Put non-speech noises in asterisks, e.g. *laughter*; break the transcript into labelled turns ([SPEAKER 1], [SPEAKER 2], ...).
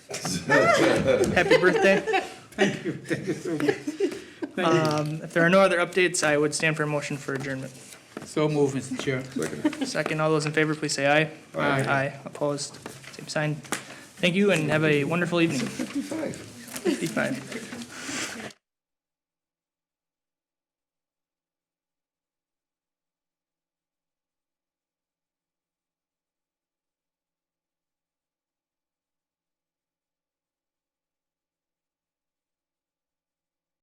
[SPEAKER 1] Happy
[SPEAKER 2] *laughs*
[SPEAKER 1] birthday.
[SPEAKER 2] Thank
[SPEAKER 1] Um, If there are no other updates, I would stand for a motion for adjournment.
[SPEAKER 2] you. So move, Mr. Chair.
[SPEAKER 1] Second, all those in favor, please say aye.
[SPEAKER 2] Aye.
[SPEAKER 1] Aye, opposed, same sign. Thank you and have a wonderful evening.
[SPEAKER 3] 55.
[SPEAKER 1] Fifty-five.